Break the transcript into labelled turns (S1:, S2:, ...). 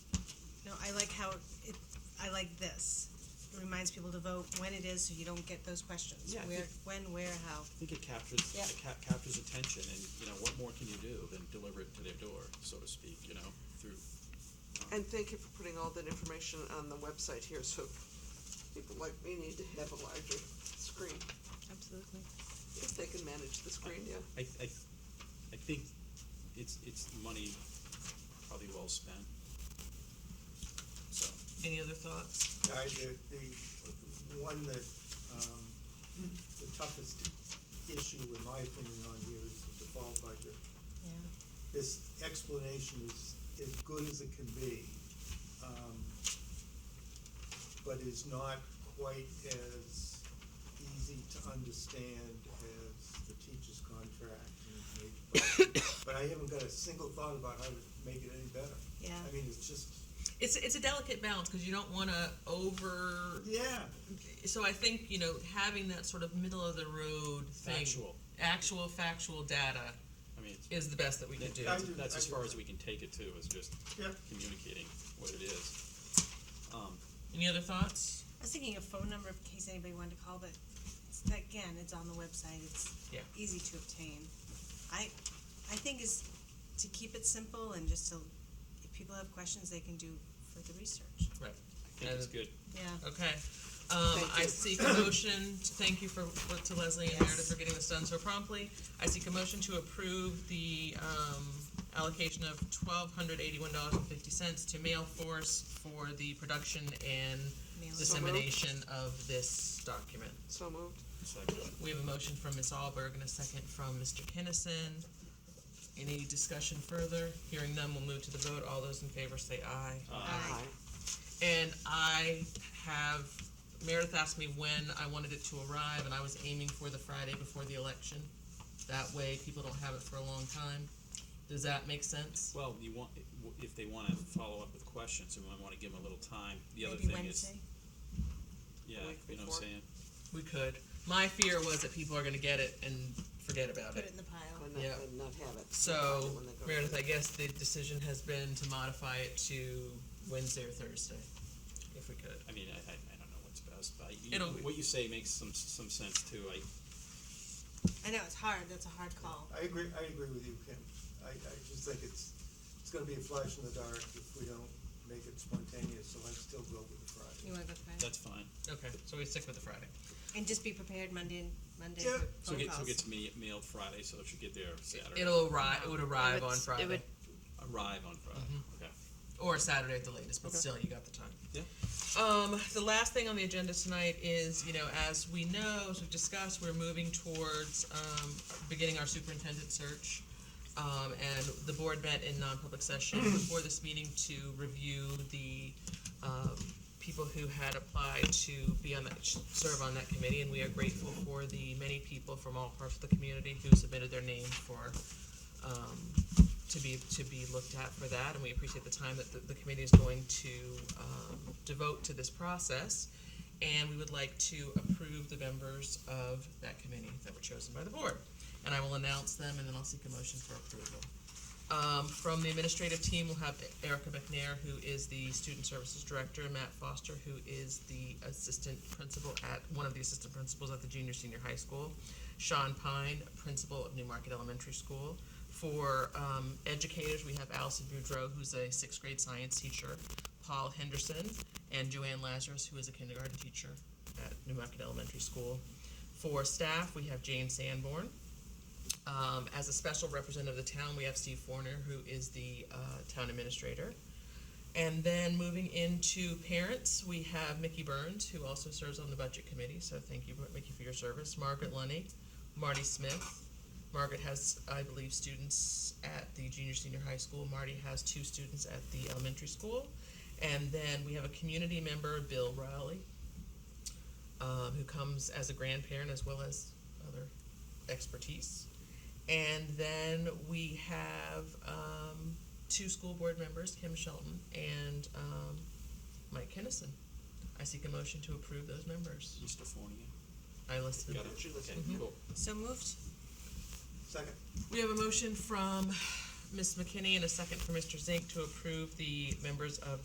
S1: I like how it, I like this. It reminds people to vote when it is, so you don't get those questions.
S2: Yeah, I
S1: Where,
S2: think-
S1: when, where, how.
S2: I think it captures,
S1: Yeah.
S2: it cap- captures attention and, you know, what more can you do than deliver it to their door, so to speak, you know, through,
S3: And thank you for putting all that information on the website here, so people like me need to have a larger screen,
S1: Absolutely.
S3: if they can manage the screen, yeah.
S2: I, I, I think it's, it's money probably well spent. So,
S4: Any other thoughts?
S5: guy, the, the one that, um, the toughest issue, in my opinion, on here is the default budget.
S1: Yeah.
S5: This explanation is as good as it can be, um, but is not quite as easy to understand as the teacher's contract. and maybe- But I haven't got a single thought about how to make it any better.
S1: Yeah.
S5: I mean, it's just,
S4: It's, it's a delicate balance because you don't want to over.
S5: yeah,
S4: So I think, you know, having that sort of middle of the road thing.
S2: Factual.
S4: Actual factual data
S2: I mean, it's-
S4: is the best that we can do.
S5: I
S2: that's,
S5: do-
S2: that's
S5: I
S2: as
S5: do
S2: far
S5: that.
S2: as we can take it too, is just
S5: yeah.
S2: communicating what it is. Um,
S4: Any other thoughts?
S1: I was thinking a phone number in case anybody wanted to call, but it's, again, it's on the website, it's
S4: Yeah.
S1: easy to obtain. I, I think is to keep it simple and just to, if people have questions, they can do further research.
S4: Right.
S2: I think it's
S4: And-
S2: good.
S1: Yeah.
S4: Okay. Um,
S3: Thank
S4: I
S3: you.
S4: seek a motion to thank you for, for- to Leslie and Meredith
S1: Yes.
S4: for getting this done so promptly. I seek a motion to approve the, um, allocation of twelve hundred eighty-one dollars and fifty cents to Mail Force for the production and
S1: Mailing.
S4: dissemination of this document.
S3: So moved.
S2: It's like, uh,
S4: We have a motion from Ms. Alberg and a second from Mr. Kinnison. Any discussion further? Hearing none, we'll move to the vote. All those in favor say aye.
S2: Uh,
S1: Aye.
S4: And I have, Meredith asked me when I wanted it to arrive, and I was aiming for the Friday before the election. That way, people don't have it for a long time. Does that make sense?
S2: Well, you want, if they wanna follow up with questions, we might wanna give them a little time. The other
S1: Maybe
S2: thing is,
S1: Wednesday.
S2: yeah,
S3: Week
S2: you know what I'm
S3: before.
S2: saying?
S4: We could. My fear was that people are gonna get it and forget about
S1: Put it
S4: it.
S1: in the pile.
S3: And not,
S4: Yeah.
S3: and not have it.
S4: So,
S3: When they go to
S4: Meredith,
S3: bed.
S4: I guess the decision has been to modify it to Wednesday or Thursday, if we could.
S2: I mean, I, I, I don't know what's best, but you,
S4: It'll-
S2: what you say makes some, some sense too. I,
S1: I know, it's hard, that's a hard call.
S5: I agree, I agree with you, Kim. I, I just think it's, it's gonna be a flash in the dark if we don't make it spontaneous, so I'd still go with the
S1: You
S5: Friday.
S1: wanna go Friday?
S2: that's fine.
S4: Okay, so we stick with the Friday.
S1: And just be prepared Monday, and Monday
S5: Yeah.
S1: for
S2: So
S1: phone
S2: get, so
S1: calls.
S2: get to me mailed Friday, so it should get there Saturday.
S4: It'll arrive, it would
S6: It
S4: arrive
S6: would-
S4: on
S6: it
S4: Friday,
S6: would-
S2: Arrive on Friday, okay.
S4: or Saturday at the latest, but still, you got the time.
S2: Yeah,
S4: Um, the last thing on the agenda tonight is, you know, as we know, as we've discussed, we're moving towards, um, beginning our superintendent search. Um, and the board met in non-public session before this meeting to review the, um, people who had applied to be on that, serve on that committee. And we are grateful for the many people from all parts of the community who submitted their name for, um, to be, to be looked at for that, and we appreciate the time that the, the committee is going to, um, devote to this process. And we would like to approve the members of that committee that were chosen by the board. And I will announce them, and then I'll seek a motion for approval. Um, from the administrative team, we'll have Erica McNair, who is the student services director, and Matt Foster, who is the assistant principal at, one of the assistant principals at the junior senior high school. Sean Pine, principal of Newmarket Elementary School. For, um, educators, we have Allison Boudreau, who's a sixth grade science teacher, Paul Henderson, and Joanne Lazarus, who is a kindergarten teacher at Newmarket Elementary School. For staff, we have Jane Sanborn, um, as a special representative of the town, we have Steve Forner, who is the uh, town administrator. And then moving into parents, we have Mickey Burns, who also serves on the budget committee. So thank you, Mickey, for your service. Margaret Lunny, Marty Smith. Margaret has, I believe, students at the junior senior high school. Marty has two students at the elementary school. And then we have a community member, Bill Riley, um, who comes as a grandparent as well as other expertise. And then we have um, two school board members, Kim Shelton and um, Mike Kennison. I seek a motion to approve those members.
S2: Mr. Fornia,
S4: I listed
S2: got
S4: them.
S2: it? Okay,
S4: Mhm.
S2: cool.
S1: So moved?
S5: Second,
S4: We have a motion from Ms. McKinney and a second from Mr. Zink to approve the members of